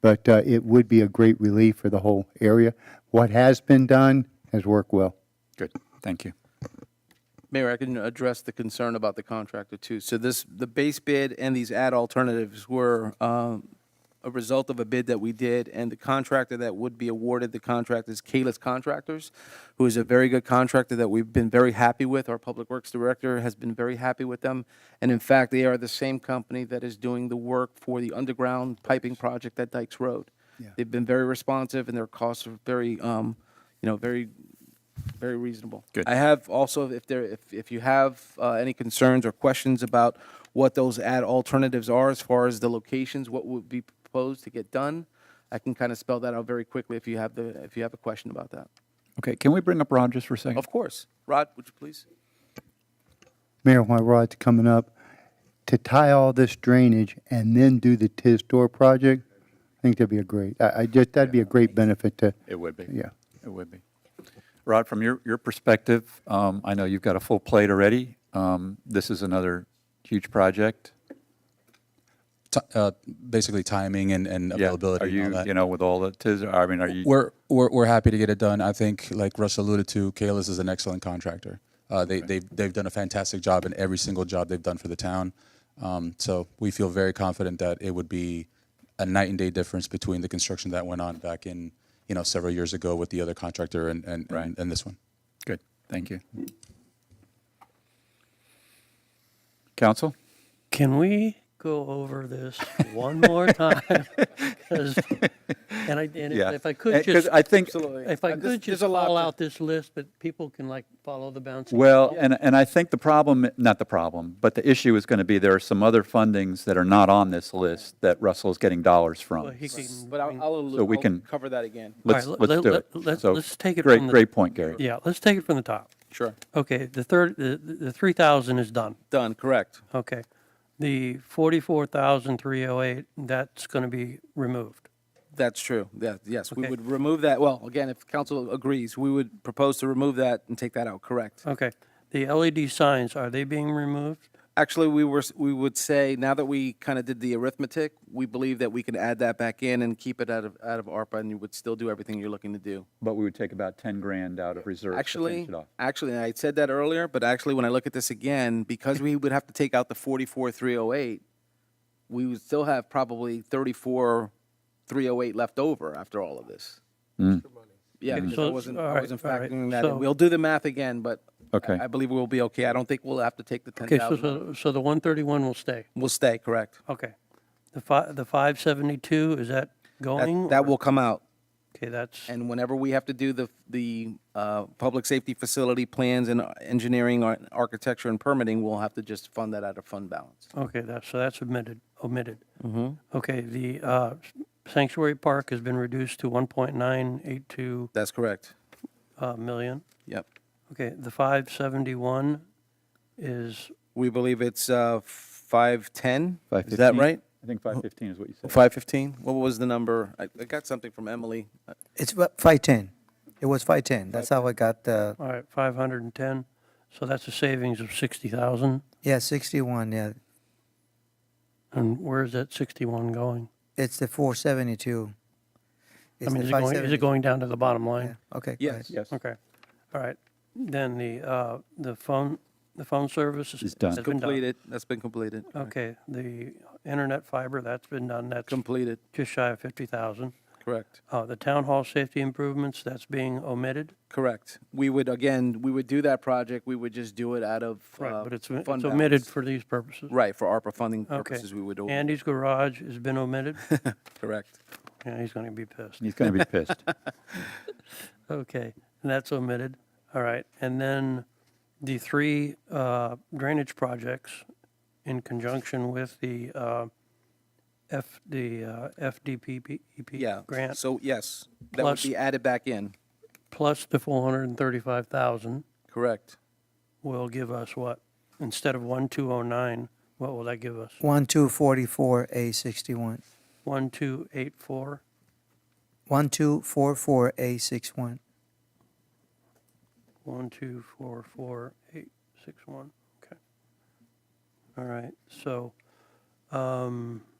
but uh, it would be a great relief for the whole area. What has been done has worked well. Good, thank you. Mayor, I can address the concern about the contractor too. So this, the base bid and these ad alternatives were um, a result of a bid that we did, and the contractor that would be awarded the contract is Kalis Contractors, who is a very good contractor that we've been very happy with. Our Public Works Director has been very happy with them. And in fact, they are the same company that is doing the work for the underground piping project at Dykes Road. They've been very responsive, and their costs are very, um, you know, very very reasonable. Good. I have also, if there, if, if you have uh, any concerns or questions about what those ad alternatives are as far as the locations, what would be proposed to get done, I can kind of spell that out very quickly if you have the, if you have a question about that. Okay, can we bring up Ron just for a second? Of course. Rod, would you please? Mayor, while Rod's coming up, to tie all this drainage and then do the TIS door project, I think that'd be a great, I, I just, that'd be a great benefit to, It would be. Yeah. It would be. Rod, from your, your perspective, um, I know you've got a full plate already. Um, This is another huge project. Ti- uh, basically timing and, and Yeah, availability. Are and all you, that. you know, with all the, tis- I mean, are you? we're, we're we're happy to get it done. I think, like Russ alluded to, Kalis is an excellent contractor. Uh, they they've, they've done a fantastic job in every single job they've done for the town. Um, so we feel very confident that it would be a night and day difference between the construction that went on back in you know several years ago with the other contractor and and, Right. and, and this one. Good, thank you. Council. Can we go over this one more time? 'Cause- And I, and Yeah. if- if I Uh, could 'cause just, I think, if Uh, I could just call out this list, but people can like follow the bouncing. well, and, and I think the problem, not the problem, but the issue is going to be there are some other fundings that are not on this list that Russell's getting dollars Well, from. he can But I'll, bring- I'll, allude- So we I'll can- cover that again. Let's, All right, let- let's do let- it. let- So, let's take it Great, from the- great point, Gary. Yeah, let's take it from the top. Sure. Okay, the third, the, the three thousand is done. Done, correct. Okay. The forty-four thousand three oh eight, that's gonna be removed. That's true. Yeah, yes, we Okay. would remove that. Well, again, if council agrees, we would propose to remove that and take that out, correct? Okay. The LED signs, are they being removed? Actually, we were, s- we would say, now that we kind of did the arithmetic, we believe that we can add that back in and keep it out of, out of ARPA, and you would still do everything you're looking to do. But we would take about 10 grand out of reserves to Actually, finish it off. actually, and I said that earlier, but actually, when I look at this again, because we would have to take out the forty-four, three oh eight, we would still have probably thirty-four, three oh eight left over after all of this. Hmm. Yeah, because I So- wasn't, all I right, wasn't all right, factoring that in. so- We'll do the math again, but I- Okay. I believe we'll be okay. I don't think we'll have to take the ten Okay, so, thousand. so, so the one thirty-one will stay. We'll stay, correct? Okay. The fi, the five seventy-two, is that going? That, that or- will come out. Okay, that's, And whenever we have to do the, the uh, public safety facility plans and engineering, ar- architecture and permitting, we'll have to just fund that out of fund balance. okay, that's, so that's omitted, omitted. Okay, the, uh, sanctuary park has been reduced to one point nine eight two, That's correct. uh, million. Yep. Okay, the five seventy-one is, We believe it's uh, 510? Is that 515. right? I think 515 is what you said. 515? What was the number? I I got something from Emily. Uh, It's wa- 510. It was 510. That's how I got the, all right, five hundred and ten. So that's a savings of sixty thousand. yeah, 61, yeah. And where is that sixty-one going? It's the I 472. It's mean, is it going, the is 570. it going down to the bottom line? Yeah, Okay. go Yes, ahead. Yes. Okay, all right. Then the, uh, the phone, the phone service is. Is done. has been Completed. That's been completed. Okay, the internet fiber, that's been done, that's Completed, just shy of fifty thousand. correct. Uh, the town hall safety improvements, that's being omitted, Correct. We would, again, we would do that project, we would just do it out of. uh, right, but it's, it's fund omitted balance. for these purposes. Right, for ARPA funding Okay. purposes, we would, do it. Andy's garage has been omitted, correct. yeah, he's gonna be pissed. He's going to be pissed. Okay, and that's omitted, all right, and then the three, uh, drainage projects in conjunction with the, uh, F, the, uh, Yeah. FDPP E grant. So, yes, that would Plus- be added back in, plus the 435,000 correct. will give us what? Instead of 1209, what will that give us? 1244, A61. 1284? 1244, A61. 1244861, okay. All right, so, um,